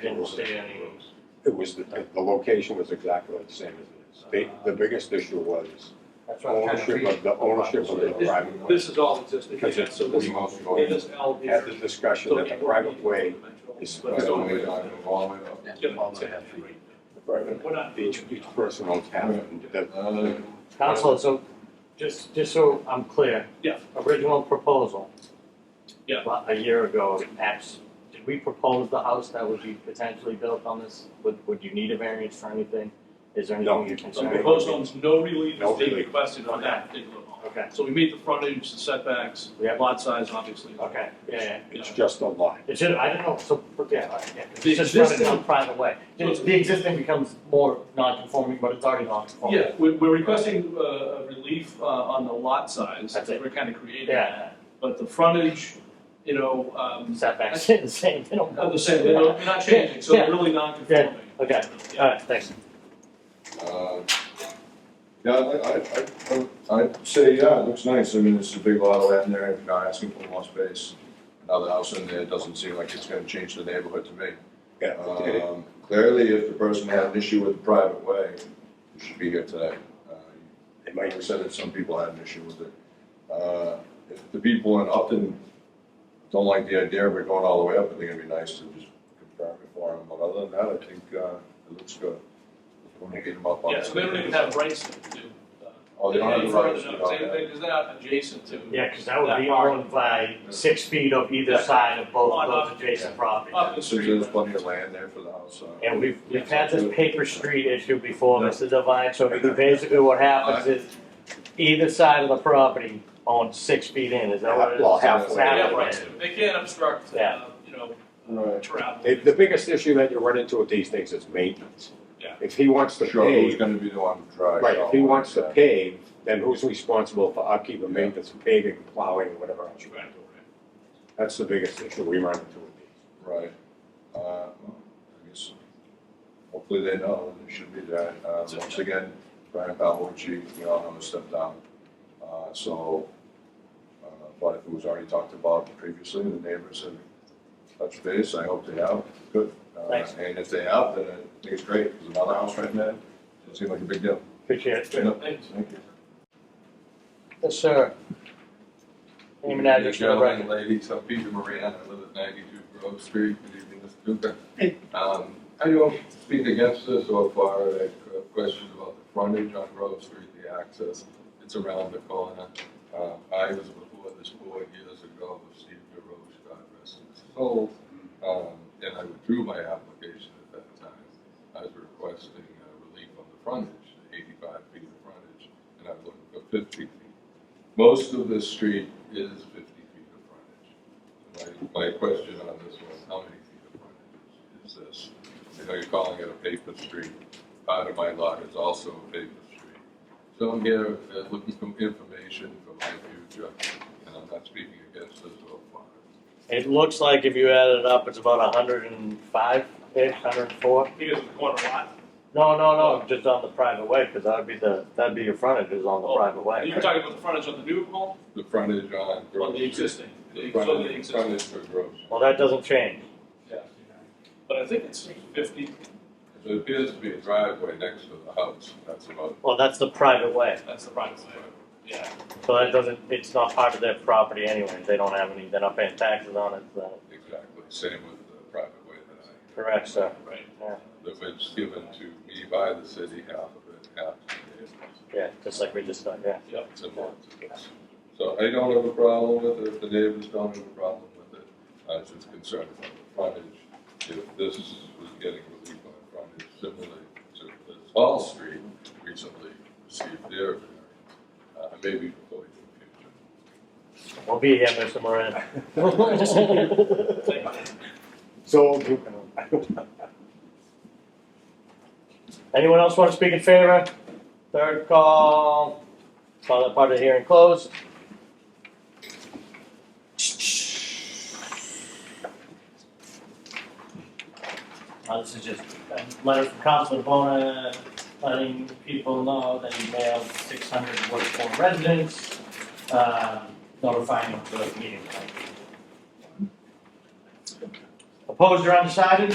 didn't see any. It was, the, the location was exactly the same as it is. The, the biggest issue was That's what I'm trying to ownership read. of, the ownership of the This- private way. This is all existing, Because yeah, it's so this, emotional. this L here. Had the discussion that the private way is. But it's only- Well, Yeah, it's a- Private. We're not- Each, each person owns half, and the, Council, so, just, just so I'm clear. Yeah. Original proposal. Yeah. about A year ago, apps, did we propose the house that would be potentially built on this? Would, would you need a variance for anything? Is there No. anything you're So concerned? proposed homes, no relief No is being relief. requested on that particular home. Okay, So we meet the frontage, the setbacks, Yeah. lot size, obviously. okay, yeah, yeah. it's just a lot. It should, I don't know, so, yeah, all right, yeah. It's The just running existing- on private way. The the existing becomes more non-conforming, but it's already non-conforming. Yeah, we're, we're requesting, uh, a relief, uh, on the lot size, That's it. we're kind of creating that. Yeah, But the frontage, you know, um, setbacks, the same, they don't. are the same, they're not, they're not changing, so Yeah. they're really non-conforming. Okay, all right, thanks. Uh, Yeah, I, I, I, I'd say, yeah, it looks nice, I mean, it's a big lot of land there, you're not asking for more space. Another house in there doesn't seem like it's gonna change the neighborhood to me. Yeah, it- Uh, it- Um, Clearly, if the person had an issue with the private way, you should be here today. Uh, it Mike might, said that some people had an issue with it. Uh, If the people in Upton don't like the idea of it going all the way up, I think it'd be nice to just confirm it for them, but other than that, I think uh, it looks good. When we get them up on. Yeah, so they don't even have rights to do, uh, Oh, they don't have the rights, they Any don't further, have. no, because they're not adjacent to. Yeah, because that would be part. owned by six feet of either side of both of those adjacent properties. Up the So street. there's plenty of land there for the house, so. And we've, we've had this paper street issue before, Mr. Devine, so basically what happens is either side of the property owns six feet in, is that what it is? Well, halfway. They have Halfway. rights to, they can't obstruct, Yeah. uh, you know, Right. travel. it- the biggest issue that you run into with these things is maintenance. Yeah. If he wants to Sure, who's pave, gonna be the one to drive? right, if he wants to Yeah. pave, then who's responsible for upkeep and maintenance, paving, plowing, and whatever else you Right, want. right. That's the biggest issue we run into with these. Right. Uh, well, I guess Hopefully they know, they should be there. Uh, That's it. Once again, Brian Pavlovich, we all know, stepped down. Uh, So, uh, but it was already talked about previously, the neighbors have touched base, I hope they have, good. Uh, Thanks. And if they have, then I think it's great, there's another house right there, doesn't seem like a big deal. Appreciate it. Yeah. Thank you. Thank you. Yes, sir. Name and address for the Gentlemen record. and ladies, I'm Peter Moran, I live at ninety-two Grove Street, good evening, Mr. Duca. Um, I don't speak against this so far, I have questions about the frontage on Grove Street, the access, it's around the corner. Uh, I was before this board years ago with Steve DeRoche, God rest his soul, um, and I withdrew my application at that time. I was requesting uh, relief on the frontage, eighty-five feet of frontage, and I was looking for fifty feet. Most of this street is fifty feet of frontage. My, my question on this one, how many feet of frontage is this? I know you're calling it a paper street, part of my lot is also a paper street. So I'm here uh, looking for information for my future, and I'm not speaking against this so far. It looks like if you add it up, it's about hundred and five, ish, hundred and four. He doesn't want a lot. No, no, no, just on the private way, because that'd be the, that'd be your frontage is on the Oh, private way. You're talking about the frontage on the new home, The frontage on Grove. on the Street. existing, The so the frontage, existing. frontage for Grove. Street. Well, that doesn't change. But I think it's fifty, There appears to be a driveway next to the house, that's about Well, that's the private way, that's the private way, yeah. so that doesn't, it's not part of their property anyway. They don't have any, they're not paying taxes on it, so, exactly, same with the private way that I correct, sir. Right. Yeah. that was given to me by the city, half of it, half to the neighbors. Yeah, just like we just done, yeah. similar to this. So I don't have a problem with it, the neighbors don't have a problem with it, I was just concerned about the frontage. If this was getting relief on frontage, similarly to this Hall Street recently received their variance, uh, maybe before in We'll be here, Mr. Moran. Thank you. So, Anyone else want to speak in favor? Third call, call that part of the hearing closed. Uh, this is just a letter from Councilman Bona letting people know that he mailed six hundred Woodford residents, uh, notifying of the meeting. Opposed or undecided?